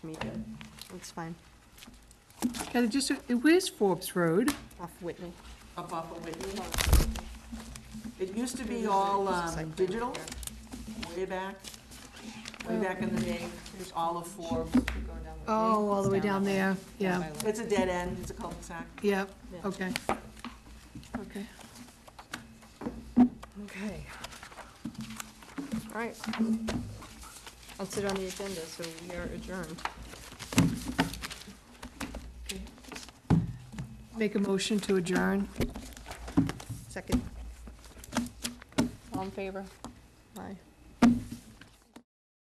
Me too. It's fine, Kathy, just, where's Forbes Road? off Whitney. up off of Whitney. It used to be all um, digital, way back, way back in the day, There's all of Forbes. Oh, all the way down there, yeah, It's a dead end, it's a cul-de-sac. yeah, Yeah. okay. Okay. Okay. All right. I'll sit on the agenda, so we are adjourned. Make a motion to adjourn. Second. All in favor? Aye.